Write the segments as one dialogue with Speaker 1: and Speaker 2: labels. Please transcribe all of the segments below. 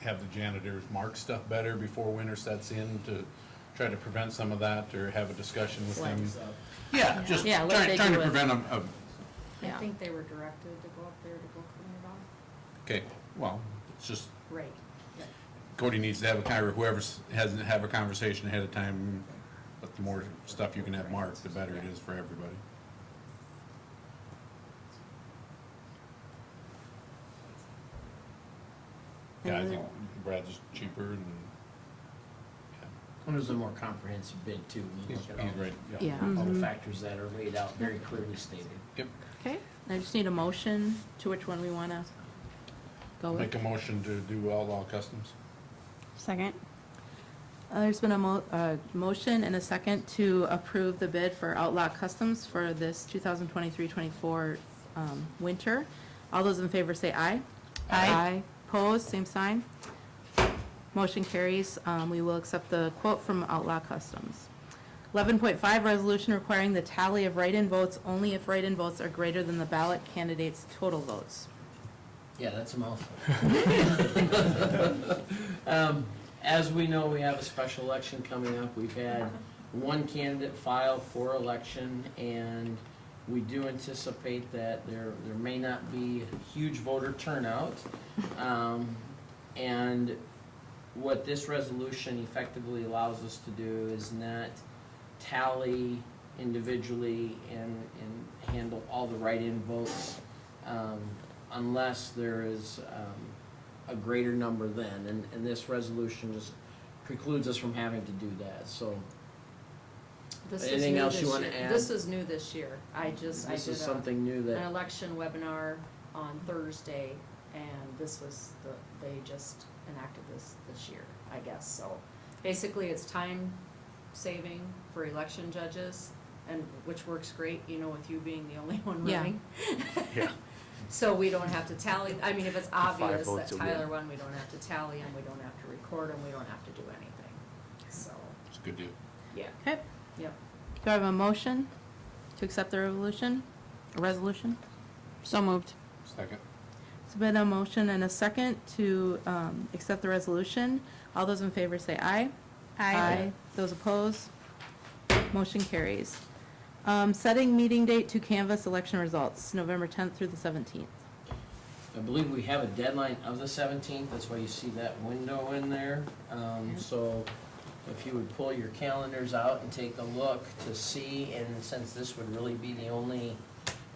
Speaker 1: have the janitors mark stuff better before winter sets in to try to prevent some of that, or have a discussion with them?
Speaker 2: Flags up.
Speaker 1: Yeah, just
Speaker 3: Yeah,
Speaker 1: trying,
Speaker 3: like they
Speaker 1: trying
Speaker 3: do
Speaker 1: to
Speaker 3: with-
Speaker 1: prevent uh, a, a
Speaker 4: I
Speaker 3: Yeah.
Speaker 4: think they were directed to go up there to go clean it off.
Speaker 1: Okay, well, it's just,
Speaker 4: Right. Yeah.
Speaker 1: Cody needs to have a, con- or whoever's, hasn't, have a conversation ahead of time, but the more stuff you can have marked, the better it is for everybody. Yeah, I think
Speaker 3: Mm-hmm.
Speaker 1: Brad's cheaper and,
Speaker 2: And there's a more comprehensive bid too, when
Speaker 1: yeah,
Speaker 2: you
Speaker 1: he's,
Speaker 2: look at all,
Speaker 1: he's right, yeah.
Speaker 3: Yeah.
Speaker 2: all the factors that are laid out, very clearly stated.
Speaker 1: Yep,
Speaker 3: Okay, I just need a motion to which one we want to go with.
Speaker 1: make a motion to do outlaw customs.
Speaker 5: Second.
Speaker 3: Uh, There's been a mo, uh, motion and a second to approve the bid for Outlaw Customs for this 2023-24, um, winter. All those in favor say aye.
Speaker 5: Aye.
Speaker 3: Opposed, same sign. Motion carries. Um, we will accept the quote from Outlaw Customs. Eleven point five, resolution requiring the tally of write-in votes only if write-in votes are greater than the ballot candidate's total votes.
Speaker 2: Yeah, that's a mouthful. Um, As we know, we have a special election coming up. We've had one candidate file for election, and we do anticipate that there, there may not be huge voter turnout. Um, And what this resolution effectively allows us to do is not tally individually and, and handle all the write-in votes um, unless there is um, a greater number then. And, and this resolution just precludes us from having to do that, so
Speaker 4: This is
Speaker 2: Anything
Speaker 4: new
Speaker 2: else you
Speaker 4: this
Speaker 2: wanna
Speaker 4: year.
Speaker 2: add?
Speaker 4: This is new this year. I just, I
Speaker 2: this
Speaker 4: did
Speaker 2: is
Speaker 4: a,
Speaker 2: something new
Speaker 4: an
Speaker 2: that,
Speaker 4: election webinar on Thursday, and this was the, they just enacted this this year, I guess, so. Basically, it's time saving for election judges, and, which works great, you know, with you being the only one
Speaker 3: Yeah.
Speaker 4: running. So we don't have to tally, I mean, if it's obvious that Tyler won, we don't have to tally him, we don't have to record him, we don't have to do anything, so,
Speaker 1: It's a good deal.
Speaker 4: yeah,
Speaker 3: Okay,
Speaker 4: yep.
Speaker 3: do I have a motion to accept the revolution, resolution?
Speaker 5: So moved.
Speaker 1: Second.
Speaker 3: It's been a motion and a second to um, accept the resolution. All those in favor say aye. Those opposed? Motion carries. Um, Setting meeting date to canvass election results, November 10th through the 17th.
Speaker 2: I believe we have a deadline of the seventeenth, that's why you see that window in there. Um, So if you would pull your calendars out and take a look to see, and since this would really be the only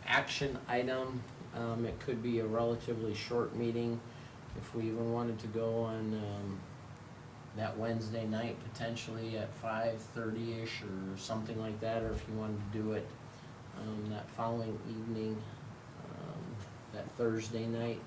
Speaker 2: action item, um, it could be a relatively short meeting. If we even wanted to go on, um, that Wednesday night potentially at five thirty-ish or something like that, or if you wanted to do it, um, that following evening, um, that Thursday night.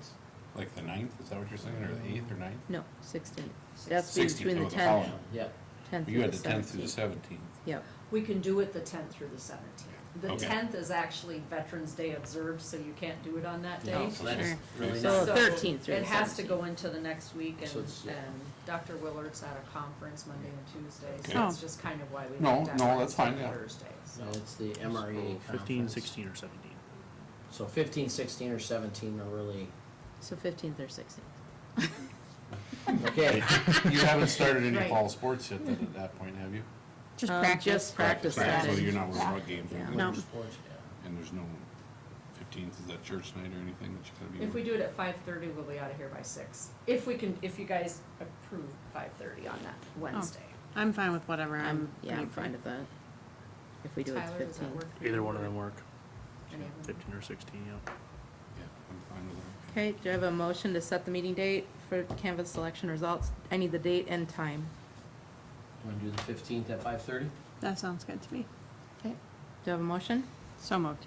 Speaker 1: Like the ninth, is that what you're saying, or the eighth or ninth?
Speaker 3: No, 16th. That's
Speaker 1: Sixteenth.
Speaker 3: between
Speaker 1: Sixteenth, oh,
Speaker 3: the
Speaker 1: the
Speaker 3: 10th,
Speaker 1: following.
Speaker 2: Yeah,
Speaker 3: 10th
Speaker 1: You
Speaker 3: through
Speaker 1: had
Speaker 3: the
Speaker 1: the tenth through the
Speaker 3: 17th.
Speaker 1: seventeenth.
Speaker 3: Yep.
Speaker 4: We can do it the tenth through the seventeenth. The
Speaker 1: Okay.
Speaker 4: tenth is actually Veterans Day observed, so you can't do it on that day.
Speaker 2: no, so that's
Speaker 5: Sure.
Speaker 2: really
Speaker 3: So
Speaker 2: not,
Speaker 3: the 13th through
Speaker 4: It
Speaker 3: the
Speaker 4: has to go into the next week and,
Speaker 2: So it's-
Speaker 4: and Dr. Willard's at a conference Monday and Tuesday, so
Speaker 5: Okay.
Speaker 3: Oh.
Speaker 4: that's just kind of why we.
Speaker 1: No,
Speaker 4: looked at
Speaker 1: no, that's fine,
Speaker 4: Wednesday,
Speaker 1: yeah.
Speaker 4: Thursdays.
Speaker 2: no, it's the MRE conference.
Speaker 6: Fifteen, sixteen, or seventeen.
Speaker 2: So fifteen, sixteen, or seventeen are really,
Speaker 3: So 15th or 16th.
Speaker 2: okay.
Speaker 1: You haven't started any
Speaker 4: Right.
Speaker 1: fall sports yet then at that point, have you?
Speaker 5: Just
Speaker 3: Um,
Speaker 5: practice.
Speaker 3: Just practice
Speaker 1: Right, So
Speaker 3: strategy.
Speaker 1: you're not with rug games or
Speaker 3: Yeah.
Speaker 1: anything?
Speaker 5: No.
Speaker 2: Sports, yeah.
Speaker 1: And there's no fifteenth, is that church night or anything that you gotta be?
Speaker 4: If we do it at five thirty, we'll be out of here by six, if we can, if you guys approve five thirty on that
Speaker 3: Oh,
Speaker 4: Wednesday.
Speaker 5: I'm fine with whatever.
Speaker 3: I'm,
Speaker 5: I'm.
Speaker 3: yeah, I'm fine with that. If we do it
Speaker 4: Tyler, does that
Speaker 3: 15th.
Speaker 4: work? for
Speaker 6: Either
Speaker 4: you?
Speaker 6: one of them work,
Speaker 4: Any of them?
Speaker 6: fifteen or sixteen, yeah.
Speaker 1: Yeah, I'm fine with that.
Speaker 3: Okay, do I have a motion to set the meeting date for canvas selection results? I need the date and time.
Speaker 2: Want to do the fifteenth at five thirty?
Speaker 5: That sounds good to me.
Speaker 3: Okay. Do I have a motion?
Speaker 5: So moved.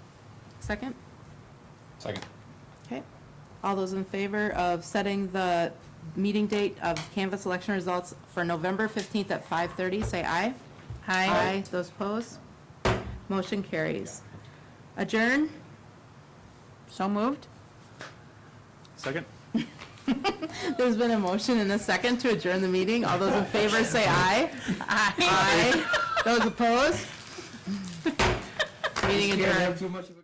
Speaker 3: Second?
Speaker 1: Second.
Speaker 3: Okay. All those in favor of setting the meeting date of canvas selection results for November 15th at 5:30, say aye. Aye. Those opposed? Motion carries. Adjourn?
Speaker 5: So moved.
Speaker 6: Second?
Speaker 3: There's been a motion and a second to adjourn the meeting. All those in favor say aye. Aye. Those opposed? Meeting adjourned.